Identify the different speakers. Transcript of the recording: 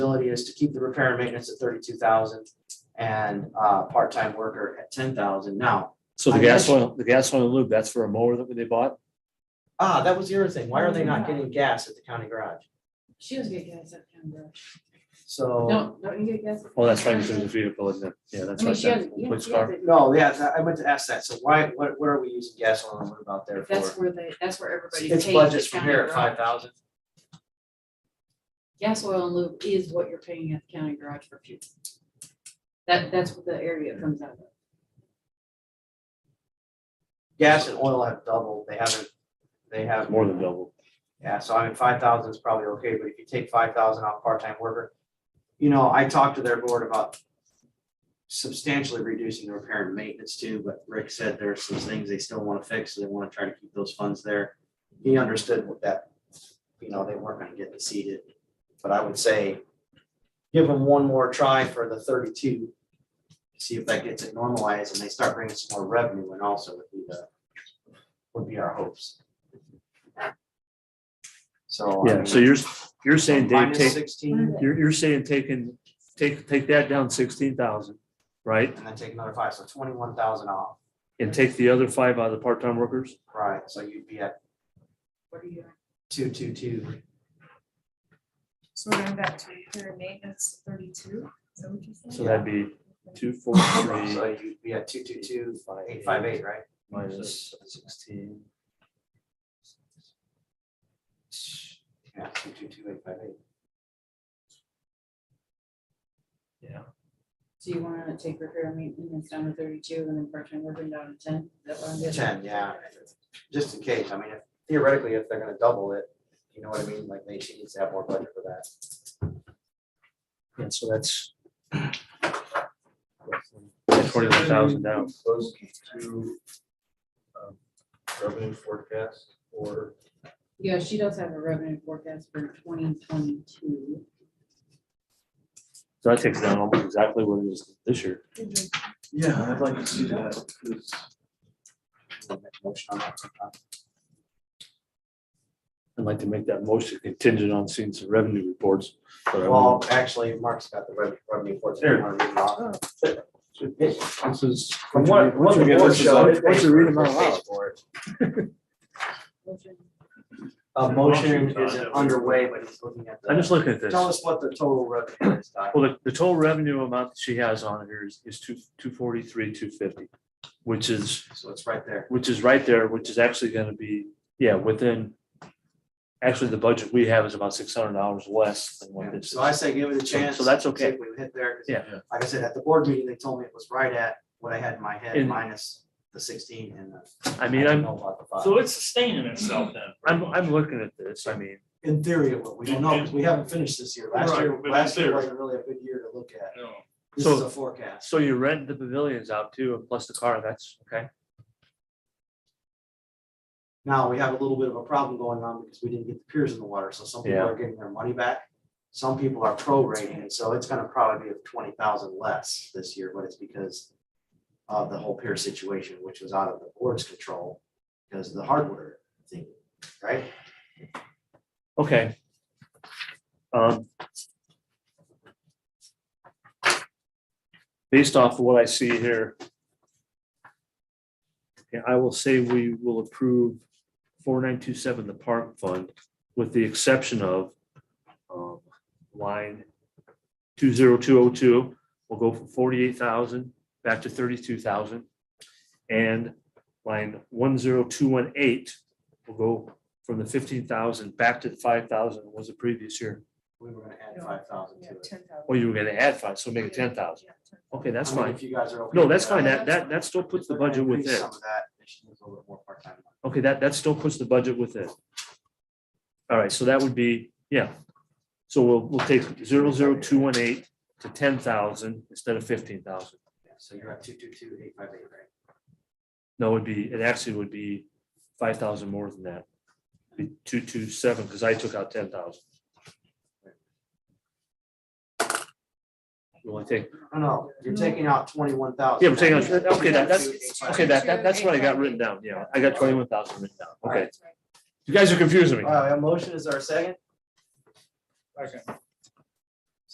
Speaker 1: is to keep the repair and maintenance at thirty-two thousand and, uh, part-time worker at ten thousand. Now,
Speaker 2: So the
Speaker 1: I
Speaker 2: gas
Speaker 1: guess-
Speaker 2: oil, the gas oil lube, that's for a mower that they bought?
Speaker 1: ah, that was the other thing. Why are they not
Speaker 3: Mm-hmm.
Speaker 1: getting gas at the county garage?
Speaker 3: She was gonna get September.
Speaker 1: So,
Speaker 3: No, don't you get gas?
Speaker 2: Oh, that's right, because it's a vehicle, isn't it? Yeah, that's
Speaker 3: I mean,
Speaker 2: right.
Speaker 3: she has,
Speaker 2: that
Speaker 3: yeah,
Speaker 2: police
Speaker 3: she
Speaker 2: car.
Speaker 3: has it.
Speaker 1: no, yeah, I meant to ask that. So why, what, what are we using gas on and what about there
Speaker 3: That's
Speaker 1: for?
Speaker 3: where they, that's where everybody pays.
Speaker 1: It's budgets
Speaker 3: the
Speaker 1: from
Speaker 3: county
Speaker 1: here at
Speaker 3: garage.
Speaker 1: five thousand.
Speaker 3: Gas, oil and lube is what you're paying at the county garage for fuel. That, that's what the area it comes out of.
Speaker 1: Gas and oil have doubled. They haven't, they have.
Speaker 2: More than double.
Speaker 1: Yeah, so I mean, five thousand is probably okay, but if you take five thousand off part-time worker, you know, I talked to their board about substantially reducing the repair and maintenance too, but Rick said there's some things they still want to fix, so they want to try to keep those funds there. He understood what that, you know, they weren't gonna get exceeded, but I would say give them one more try for the thirty-two. See if that gets it normalized and they start bringing some more revenue and also would be the, would be our hopes. So. I
Speaker 2: Yeah,
Speaker 1: mean,
Speaker 2: so you're, you're saying Dave,
Speaker 1: minus
Speaker 2: take,
Speaker 1: Sixteen,
Speaker 2: you're, you're saying taking, take, take that down sixteen thousand, right?
Speaker 1: and then take another five, so twenty-one thousand off,
Speaker 2: And take the other five out of the part-time workers?
Speaker 1: right, so you'd be at
Speaker 3: What are you?
Speaker 1: two, two, two.
Speaker 4: So we're going back to repair and maintenance thirty-two, is that what you said?
Speaker 2: So that'd be two, four,
Speaker 1: So
Speaker 2: three,
Speaker 1: you'd be at two, two, two, eight, five, eight, right?
Speaker 2: minus sixteen.
Speaker 1: Yeah, two, two, two, eight, five, eight.
Speaker 2: Yeah.
Speaker 3: So you wanna take repair and maintenance down to thirty-two and then part-time working down to ten? Is that what I'm getting?
Speaker 1: 10, yeah. Just in case, I mean, if- theoretically, if they're gonna double it, you know what I mean, like, they should needs to have more budget for that.
Speaker 2: And so that's. Twenty-one thousand down.
Speaker 5: Close to um, revenue forecast or
Speaker 3: Yeah, she does have a revenue forecast for twenty twenty-two.
Speaker 2: So that takes down almost exactly what it is this year.
Speaker 5: Yeah, I'd like to see that, 'cause
Speaker 1: We'll make a motion on that sometime.
Speaker 2: I'd like to make that motion contingent on seeing some revenue reports. but I won't.
Speaker 1: Well, actually, Mark's got the revenue, revenue for it. I wanna read it off.
Speaker 2: This is.
Speaker 1: From what, what
Speaker 2: Once we
Speaker 1: the
Speaker 2: get
Speaker 1: board
Speaker 2: this is on-
Speaker 1: showed. it
Speaker 2: once
Speaker 1: pays
Speaker 2: you read them
Speaker 1: for it,
Speaker 2: out
Speaker 1: pays
Speaker 2: loud.
Speaker 1: for it.
Speaker 3: Motion
Speaker 1: A
Speaker 5: The
Speaker 1: motion
Speaker 5: motion's on
Speaker 1: is
Speaker 5: it.
Speaker 1: underway, but he's looking at
Speaker 2: I'm just
Speaker 1: the,
Speaker 2: looking at this.
Speaker 1: tell
Speaker 2: Well,
Speaker 1: us what the total revenue is, Doc.
Speaker 2: the, the total revenue amount that she has on here is, is two, two forty-three, two fifty, which is,
Speaker 1: So it's right there.
Speaker 2: which is right there, which is actually gonna be, yeah, within. Actually, the budget we have is about six hundred dollars less than what this is.
Speaker 1: So I say give it a chance.
Speaker 2: so that's
Speaker 1: see
Speaker 2: okay.
Speaker 1: if We hit there. 'cause
Speaker 2: Yeah.
Speaker 1: Like I said, at the board meeting, they told me it was right at what I had in my head,
Speaker 2: And-
Speaker 1: minus the sixteen and the.
Speaker 2: I mean,
Speaker 1: don't
Speaker 2: I'm,
Speaker 1: know about the five.
Speaker 6: So it's sustaining itself then.
Speaker 2: I'm, I'm looking at this. I mean,
Speaker 1: In theory, it will. we don't know, because we haven't finished this year. Last year,
Speaker 6: Right, but
Speaker 1: last
Speaker 6: in
Speaker 1: year
Speaker 6: theory.
Speaker 1: wasn't really a good year to look at.
Speaker 6: No.
Speaker 1: This
Speaker 2: So-
Speaker 1: is a forecast.
Speaker 2: so you rent the pavilions out too, and plus the car, that's okay.
Speaker 1: Now, we have a little bit of a problem going on because we didn't get the piers in the water, so some people
Speaker 2: Yeah.
Speaker 1: are getting their money back. Some people are prorating, and so it's gonna probably be twenty thousand less this year, but it's because of the whole pier situation, which was out of the board's control, because of the hardware thing, right?
Speaker 2: Okay. Um. Based off of what I see here. yeah, I will say we will approve four nine two seven, the park fund, with the exception of um, line two zero two oh two, we'll go from forty-eight thousand back to thirty-two thousand. And line one zero two one eight will go from the fifteen thousand back to the five thousand was the previous year.
Speaker 1: We were gonna add five thousand
Speaker 4: Yeah,
Speaker 1: to it.
Speaker 4: 10,000.
Speaker 2: Oh, you were gonna add five, so make it ten thousand.
Speaker 4: Yeah, 10,000.
Speaker 2: Okay, that's
Speaker 1: I mean,
Speaker 2: fine.
Speaker 1: If you guys are okay.
Speaker 2: No,
Speaker 1: with
Speaker 2: that's fine.
Speaker 1: that.
Speaker 2: That, that, that still puts the
Speaker 1: They're gonna
Speaker 2: budget
Speaker 1: increase
Speaker 2: within.
Speaker 1: Some of that, they should use a little bit more part-time.
Speaker 2: Okay, that, that still puts the budget within. All right, so that would be, yeah. So we'll, we'll take zero zero two one eight to ten thousand instead of fifteen thousand.
Speaker 1: Yeah, So you're at two, two, two, eight, five, eight, right?
Speaker 2: No, it'd be, it actually would be five thousand more than that. Be two two seven, because I took out ten thousand. You want to take,
Speaker 1: No, no, you're taking out twenty-one thousand.
Speaker 2: Yeah, we're taking, out- okay, that, that's, okay, that, that, that's what I got
Speaker 4: 22,858.
Speaker 2: written down, yeah, I got twenty-one thousand written down, okay.
Speaker 4: That's right.
Speaker 1: Uh,
Speaker 2: You guys are confusing me.
Speaker 1: All right, a motion is our second.
Speaker 6: Okay.